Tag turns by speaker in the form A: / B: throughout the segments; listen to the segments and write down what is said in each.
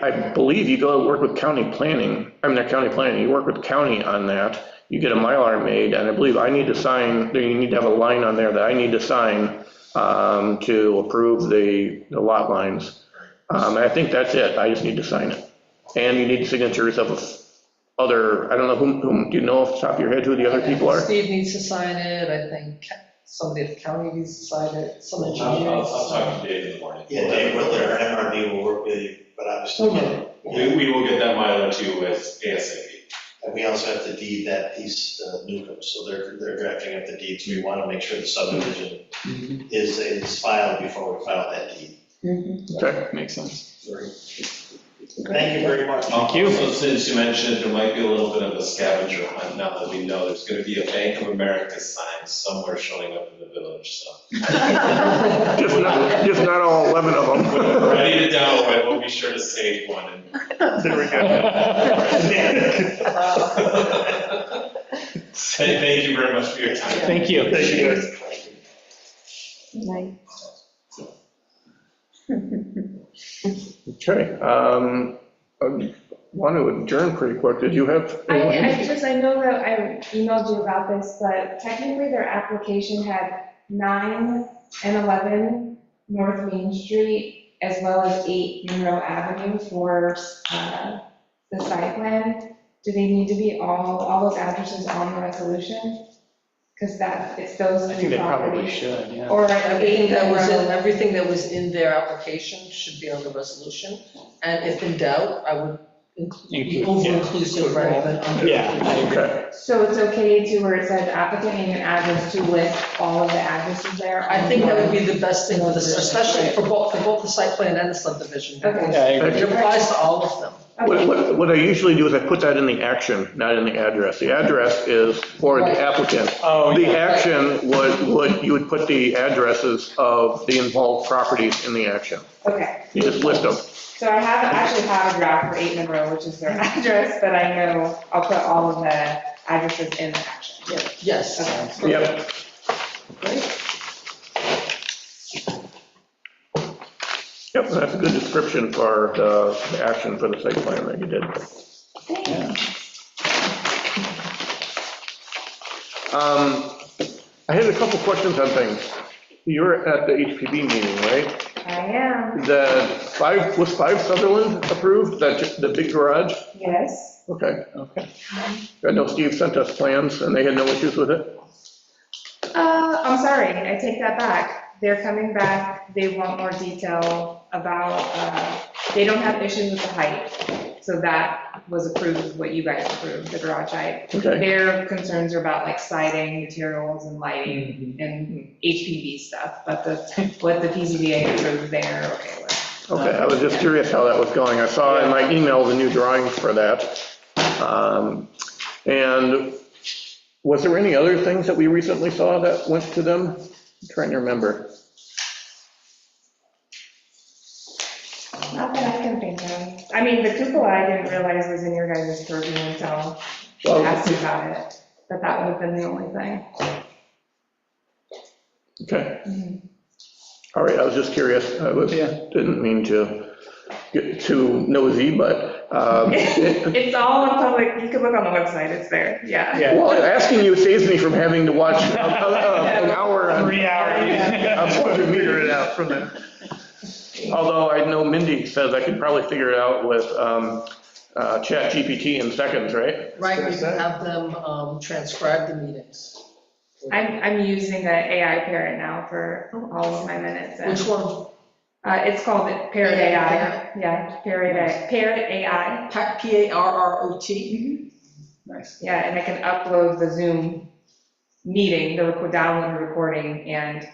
A: I believe you go work with county planning, I mean, not county planning, you work with county on that. You get a Mylar made, and I believe I need to sign, you need to have a line on there that I need to sign um, to approve the the lot lines. Um, and I think that's it, I just need to sign it. And you need signatures of other, I don't know whom, whom, do you know off the top of your head who the other people are?
B: Steve needs to sign it, I think somebody at the county needs to sign it, some
C: I'll, I'll,
B: engineering.
C: I'll talk to Dave in the morning.
D: Yeah, Dave Whitler, MRB will work with you, but obviously,
B: Okay.
C: We, we will get that Mylar too with ASAP.
D: and we also have to deed that piece, uh, Newcomb, so they're, they're drafting up the deeds. We want to make sure the subdivision is, is filed before we file that deed.
B: Mhm.
A: Okay,
E: Makes sense.
D: Thank you very much.
E: Thank you.
C: Also, since you mentioned, there might be a little bit of a scavenger hunt now that we know there's gonna be a Bank of America sign somewhere showing up in the village, so.
A: just not, just not all 11 of
C: When we're
A: them.
C: ready to download, we'll be sure to save one and
A: There we go.
B: Uh,
C: Say Thank you very much for your time.
E: Thank you.
A: Thank you, guys.
F: Right.
A: Okay, um, I want to adjourn pretty quick, did you have?
F: I, I just, I know that I emailed you about this, but technically their application had nine and 11 North Main Street, as well as eight Monroe Avenue for, uh, the site plan. Do they need to be all, all those addresses on the resolution? Because that, it's those
E: I think
F: three
E: they probably
F: properties.
E: should, yeah.
F: Or eight
B: Everything that was in,
F: Monroe.
B: everything that was in their application should be on the resolution, and if in doubt, I would include- be
E: Include, yeah.
B: over-inclusive rather than under.
E: Yeah, I agree.
A: Okay,
F: So it's okay to, where it says applicant name and address, to list all of the addresses there?
B: I think that would be the best thing for this, especially for both, for both the site plan and the subdivision.
F: Okay.
E: Yeah, I agree.
B: It applies to all of them.
A: what,
F: Okay.
A: what, what I usually do is I put that in the action, not in the address. The address is for the applicant.
E: Oh,
A: The
E: yeah.
A: action would, would, you would put the addresses of the involved properties in the action.
F: Okay,
A: You just list them.
F: so I have, actually have a draft for eight Monroe, which is their address, but I know I'll put all of the addresses in the action.
B: Yeah, Yes.
F: Okay.
A: Yep.
B: Great.
A: Yep, that's a good description for the the action for the site plan that you did.
E: Yeah.
A: Um, I had a couple questions on things. You were at the HPB meeting, right?
F: I am,
A: The five, was five Sutherland approved, that, the big garage?
F: yes.
A: Okay.
E: Okay.
A: I know Steve sent us plans and they had no issues with it.
F: Uh, I'm sorry, I take that back. They're coming back, they want more detail about, uh, they don't have issues with the height. So that was approved, what you guys approved, the garage height.
A: Okay,
F: Their concerns are about like siding, materials and lighting and HPV stuff, but the, what the PZBA approved there, okay with.
A: okay, I was just curious how that was going. I saw in my email the new drawings for that. Um, And was there any other things that we recently saw that went to them? I'm Trying to remember.
F: Not that I can think of. I mean, the cupola I didn't realize was in your guys' purview until you
A: Well,
F: asked me about it, but that would have been the only thing.
A: Okay.
F: Mhm.
A: All right, I was just curious. I was,
E: Yeah.
A: didn't mean to get too nosy, but um, it-
F: It's all on public, you can look on the website, it's there, yeah.
E: Yeah.
A: Well, asking you saves me from having to watch a- a- a- an hour on, I'm supposed to figure it out from there. Although I know Mindy says I could probably figure it out with um, uh, ChatGPT in seconds, right?
B: Right, we can have them um, transcribe the meetings.
F: I'm, I'm using an AI parrot now for all of my minutes. and-
B: Which one?
F: Uh, it's called Parrot AI, yeah, Parrot AI, Parrot AI.
B: Pa- P-A-R-R-O-T?
E: Nice.
F: Yeah, and I can upload the Zoom meeting, the record, download the recording, and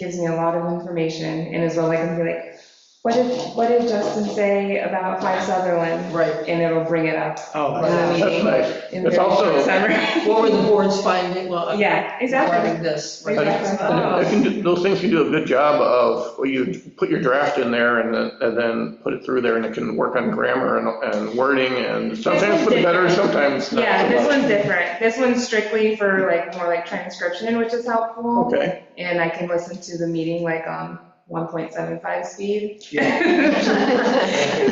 F: gives me a lot of information, and as well, I can be like, what did, what did Justin say about Five Sutherland?
B: Right.
F: And it'll bring it up
E: Oh,
F: in the
A: That's
F: meeting.
A: nice.
F: in
A: It's
F: very short
A: also-
F: summary.
B: What were the board's finding? Well,
F: Mm-hmm. Yeah, exactly. Uh,
B: regarding this.
A: I- I- I think that Those things you do a good job of, well, you put your draft in there and then, and then put it through there and it can work on grammar and- and wording and sometimes for the better, sometimes not
F: Yeah,
A: so
F: this
A: much.
F: one's different. This one's strictly for like, more like transcription, which is helpful.
A: Okay,
F: And I can listen to the meeting like on 1.75 speed.
E: yeah.